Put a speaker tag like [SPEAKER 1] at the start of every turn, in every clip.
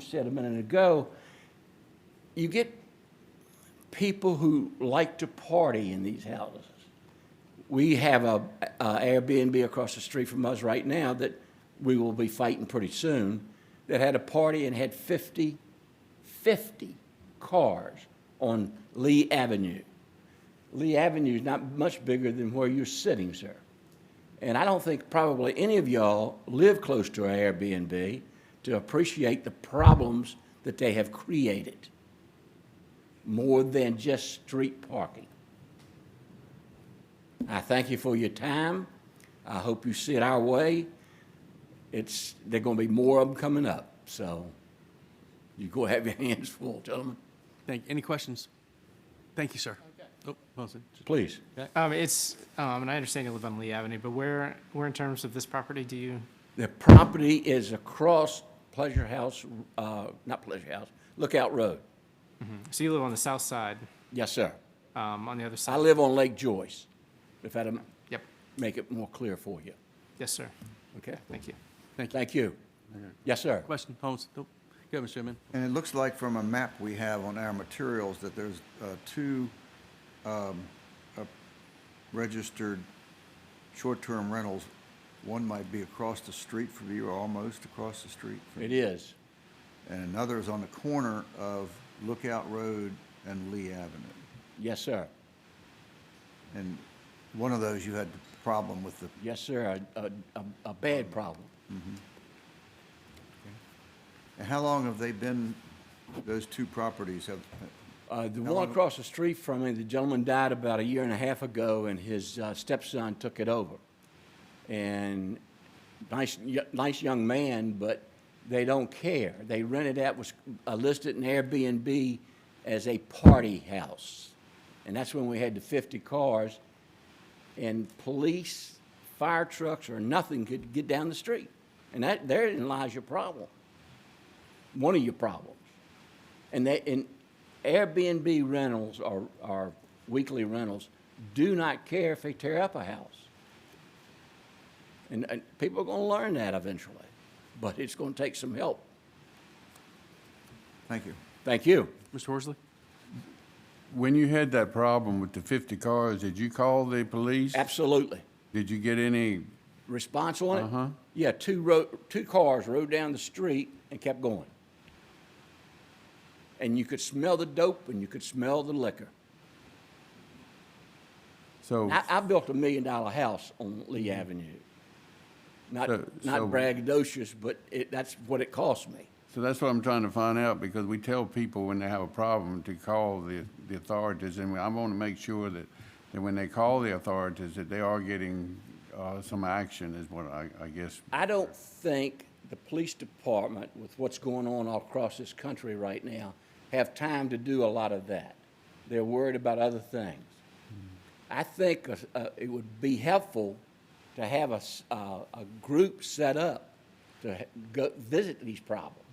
[SPEAKER 1] said a minute ago, you get people who like to party in these houses. We have a, a Airbnb across the street from us right now that we will be fighting pretty soon, that had a party and had 50, 50 cars on Lee Avenue. Lee Avenue is not much bigger than where you're sitting, sir. And I don't think probably any of y'all live close to an Airbnb to appreciate the problems that they have created more than just street parking. I thank you for your time. I hope you see it our way. It's, there're gonna be more of them coming up, so you go have your hands full, gentlemen.
[SPEAKER 2] Thank, any questions? Thank you, sir. Oh, Wilson.
[SPEAKER 1] Please.
[SPEAKER 3] Um, it's, um, and I understand you live on Lee Avenue, but where, where in terms of this property do you,
[SPEAKER 1] The property is across Pleasure House, uh, not Pleasure House, Lookout Road.
[SPEAKER 3] so you live on the south side,
[SPEAKER 1] Yes, sir.
[SPEAKER 3] um, on the other side?
[SPEAKER 1] I live on Lake Joyce, if that'll
[SPEAKER 3] Yep,
[SPEAKER 1] make it more clear for you.
[SPEAKER 3] yes, sir,
[SPEAKER 1] Okay?
[SPEAKER 3] thank you.
[SPEAKER 1] Thank you. Yes, sir.
[SPEAKER 2] Question, Holmes. Nope. Go ahead, Mr. Chairman.
[SPEAKER 4] And it looks like from a map we have on our materials that there's uh, two um, uh, registered short-term rentals. One might be across the street from you, or almost across the street from
[SPEAKER 1] It
[SPEAKER 4] you.
[SPEAKER 1] is.
[SPEAKER 4] And another is on the corner of Lookout Road and Lee Avenue.
[SPEAKER 1] Yes, sir.
[SPEAKER 4] And one of those you had the problem with the,
[SPEAKER 1] Yes, sir. A, a, a- a bad problem.
[SPEAKER 4] and how long have they been, those two properties have,
[SPEAKER 1] Uh, the one across the street from me, the gentleman died about a year and a half ago, and his uh, stepson took it over. And nice, y- nice young man, but they don't care. They rented out, was uh, listed in Airbnb as a party house. And that's when we had the 50 cars, and police, fire trucks, or nothing could get down the street. And that, therein lies your problem, one of your problems. And they, and Airbnb rentals or, or weekly rentals do not care if they tear up a house. And, and people are gonna learn that eventually, but it's gonna take some help.
[SPEAKER 4] thank you.
[SPEAKER 1] Thank you.
[SPEAKER 2] Mr. Horsley?
[SPEAKER 5] When you had that problem with the 50 cars, did you call the police?
[SPEAKER 1] Absolutely.
[SPEAKER 5] Did you get any,
[SPEAKER 1] Response on it? Uh-huh. Yeah, two ro two cars rode down the street and kept going. And you could smell the dope and you could smell the liquor.
[SPEAKER 5] so, Mm-hmm.
[SPEAKER 1] I, I built a million dollar house on Lee Avenue. Not,
[SPEAKER 5] So-
[SPEAKER 1] not
[SPEAKER 5] so-
[SPEAKER 1] braggadocious, but it, that's what it cost me.
[SPEAKER 5] so that's what I'm trying to find out, because we tell people when they have a problem to call the, the authorities, and I want to make sure that, that when they call the authorities, that they are getting, uh, some action is what I, I guess.
[SPEAKER 1] I don't think the police department, with what's going on all across this country right now, have time to do a lot of that. They're worried about other things. I think uh, uh, it would be helpful to have a, s- uh, a group set up to ha- go visit these problems.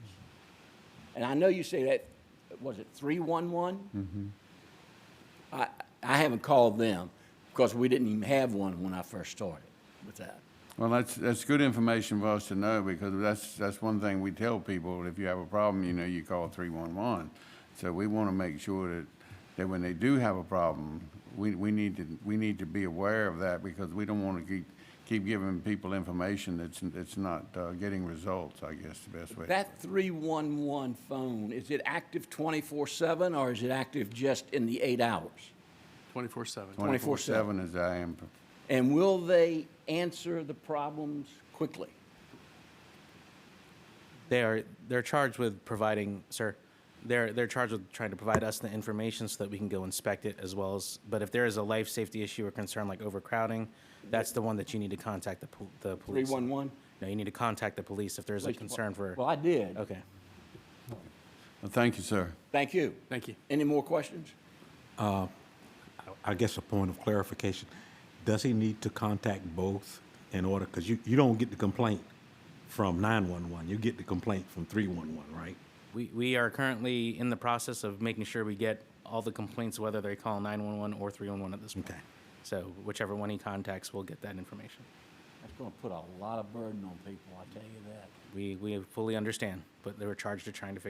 [SPEAKER 1] And I know you say that, was it 311? I, I haven't called them because we didn't even have one when I first started with that.
[SPEAKER 5] Well, that's, that's good information for us to know, because that's, that's one thing we tell people, if you have a problem, you know, you call three-one-one. So we want to make sure that, that when they do have a problem, we, we need to, we need to be aware of that, because we don't want to keep, keep giving people information that's, that's not, uh, getting results, I guess, the best way.
[SPEAKER 1] That 311 phone, is it active 24/7 or is it active just in the eight hours?
[SPEAKER 2] Twenty-four seven.
[SPEAKER 1] 24/7.
[SPEAKER 5] Twenty-four-seven is I am,
[SPEAKER 1] And will they answer the problems quickly?
[SPEAKER 6] They are they're charged with providing, sir. They're they're charged with trying to provide us the information so that we can go inspect it as well as. But if there is a life safety issue or concern like overcrowding, that's the one that you need to contact the pol- the police.
[SPEAKER 1] 311?
[SPEAKER 6] No, you need to contact the police if there's a concern for.
[SPEAKER 1] Well, I did.
[SPEAKER 6] Okay.
[SPEAKER 5] Well, thank you, sir.
[SPEAKER 1] Thank you.
[SPEAKER 2] Thank you.
[SPEAKER 1] Any more questions?
[SPEAKER 7] I guess a point of clarification, does he need to contact both in order, because you, you don't get the complaint from 911, you get the complaint from 311, right?
[SPEAKER 6] We we are currently in the process of making sure we get all the complaints, whether they call 911 or 311 at this point.
[SPEAKER 7] Okay.
[SPEAKER 6] So whichever one he contacts, we'll get that information.
[SPEAKER 1] That's going to put a lot of burden on people, I tell you that.
[SPEAKER 6] We we fully understand, but they were charged with trying to figure